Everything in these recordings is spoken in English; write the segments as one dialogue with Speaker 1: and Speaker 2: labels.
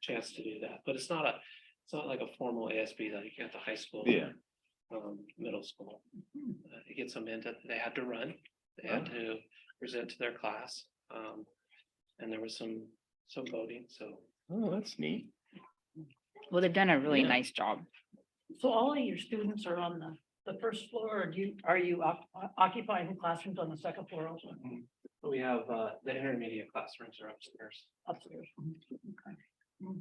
Speaker 1: chance to do that, but it's not a, it's not like a formal ASB that you get at the high school.
Speaker 2: Yeah.
Speaker 1: Um, middle school. Uh, You get some in that they had to run, they had to present to their class, um, and there was some, some voting, so.
Speaker 2: Oh, that's neat.
Speaker 3: Well, they've done a really
Speaker 2: Yeah.
Speaker 3: nice job.
Speaker 4: So all of your students are on the, the first floor, or do you, are you oc- occupying classrooms on the second floor also
Speaker 1: We have, uh, the intermediate classrooms are upstairs.
Speaker 4: upstairs? Okay. Mm.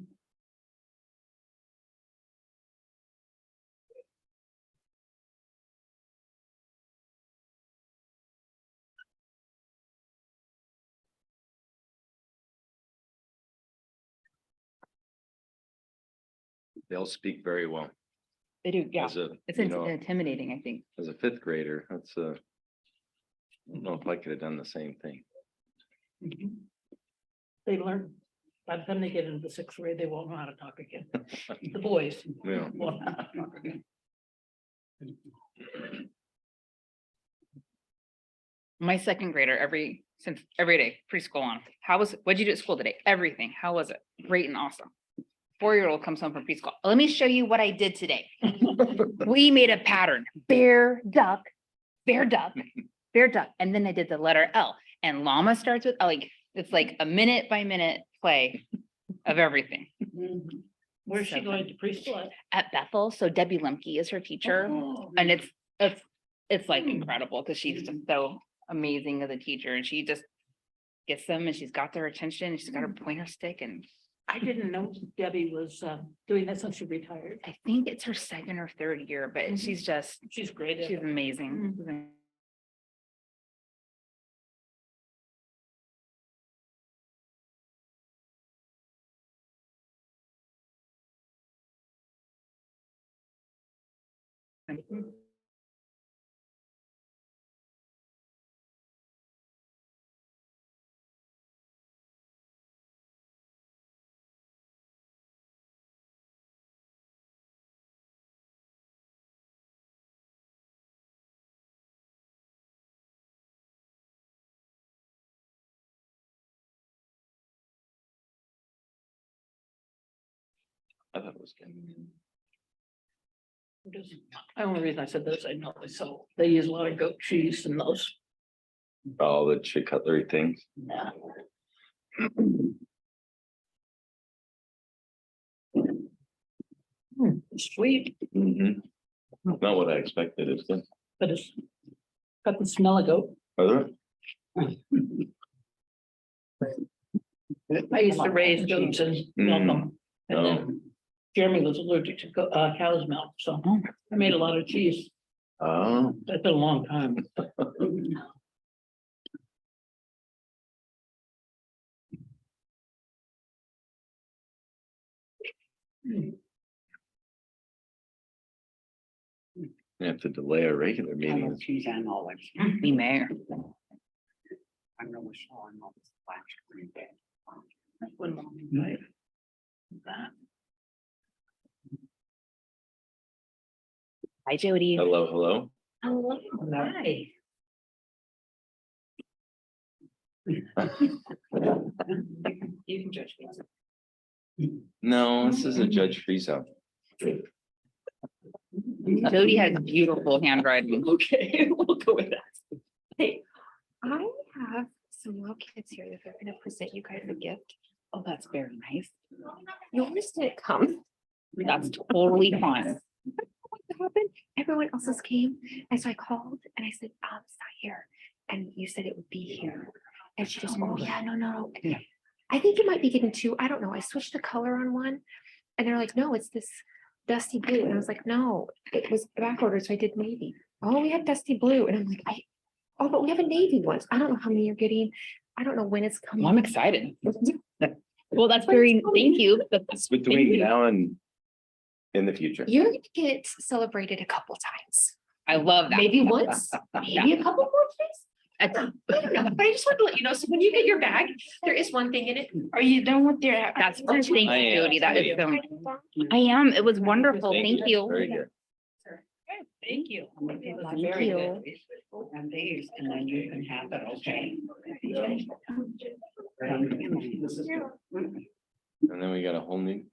Speaker 2: They'll speak very well.
Speaker 3: They do, yeah.
Speaker 2: As a,
Speaker 3: It's
Speaker 2: you
Speaker 3: int-
Speaker 2: know,
Speaker 3: intimidating, I think.
Speaker 2: as a fifth grader, that's a. I don't know if I could have done the same thing.
Speaker 3: Mm-hmm.
Speaker 4: Mhm. They learn, by the time they get into the sixth grade, they won't know how to talk again. The boys.
Speaker 2: Yeah.
Speaker 4: won't know how to talk again.
Speaker 3: My second grader, every, since every day preschool on, how was, what'd you do at school today? Everything. How was it? Great and awesome. Four-year-old comes home from preschool. Let me show you what I did today. We made a pattern, bear, duck, bear, duck, bear, duck. And then I did the letter L and llama starts with, L. like, it's like a minute by minute play of everything Mm-hmm.
Speaker 4: Mhm. Where's she
Speaker 3: Seven.
Speaker 4: going to preschool?
Speaker 3: at
Speaker 4: at?
Speaker 3: Bethel. So Debbie Lemke is her teacher.
Speaker 4: Oh,
Speaker 5: Mm.
Speaker 3: and it's, it's, it's like
Speaker 4: Hmm.
Speaker 3: incredible, cause she's just so amazing as a teacher and she just. Gets them and she's got their attention, and she's got her
Speaker 5: Mm.
Speaker 3: pointer stick and
Speaker 4: I didn't know Debbie was um, doing that since she retired.
Speaker 3: I think it's her second or third year,
Speaker 5: Mm-hmm.
Speaker 3: but
Speaker 4: Mhm.
Speaker 3: she's just,
Speaker 4: She's great. at
Speaker 3: she's
Speaker 4: it.
Speaker 3: amazing.
Speaker 2: I thought it was good.
Speaker 4: Just- The only reason I said this, I know, is so they use a lot of goat cheese and those.
Speaker 2: All the chick cutlery things.
Speaker 4: yeah. Hmm, Sweet,
Speaker 2: Mhm. Not what I expected, is it?
Speaker 4: but it's got the smell of goat.
Speaker 2: Are there?
Speaker 4: I used to raise goats and milk them. And then Jeremy was allergic to go- uh, cow's milk, so I made a lot of cheese.
Speaker 2: Oh,
Speaker 4: That's been a long time.
Speaker 2: we have to delay our
Speaker 5: I
Speaker 2: regular
Speaker 5: love
Speaker 2: meetings.
Speaker 5: cheese and olives.
Speaker 3: We may,
Speaker 5: I really saw an olive flash green day.
Speaker 4: One moment, right? That,
Speaker 3: hi Jody.
Speaker 2: Hello, hello.
Speaker 4: hello, hi.
Speaker 5: You can judge me.
Speaker 2: No, this isn't Judge Friesen.
Speaker 3: Jody has beautiful handwriting.
Speaker 5: Okay, we'll go with that.
Speaker 6: Hey, I have some little kids here that they're gonna present you guys a gift.
Speaker 3: Oh, that's very nice.
Speaker 6: Yours didn't come.
Speaker 3: That's totally fine.
Speaker 6: What happened? Everyone else's came. And so I called and I said, um, it's not here. And you said it would be here. And she goes, oh, yeah, no, no.
Speaker 5: Yeah.
Speaker 6: I think you might be getting two. I don't know. I switched the color on one. And they're like, no, it's this dusty blue. And I was like, no, it was back ordered. So I did navy. Oh, we have dusty blue. And I'm like, I, oh, but we have a navy one. I don't know how many you're getting. I don't know when it's coming.
Speaker 3: Well, I'm excited. Well, that's very, thank you. That's-
Speaker 2: Between now and in the future.
Speaker 6: You're gonna get celebrated a couple times,
Speaker 3: I love that.
Speaker 6: maybe once,
Speaker 3: Oh,
Speaker 6: maybe a couple more times.
Speaker 3: That's-
Speaker 6: I don't know, but I just wanted to let you know, so when you get your bag, there is one thing in it. Are you done with your?
Speaker 3: That's, thank you, Jody. That is so. I am. It was wonderful. Thank you.
Speaker 2: Very good.
Speaker 4: Thank you.
Speaker 5: That's very good. And these, and then you can have that, okay?
Speaker 2: And then we got a whole new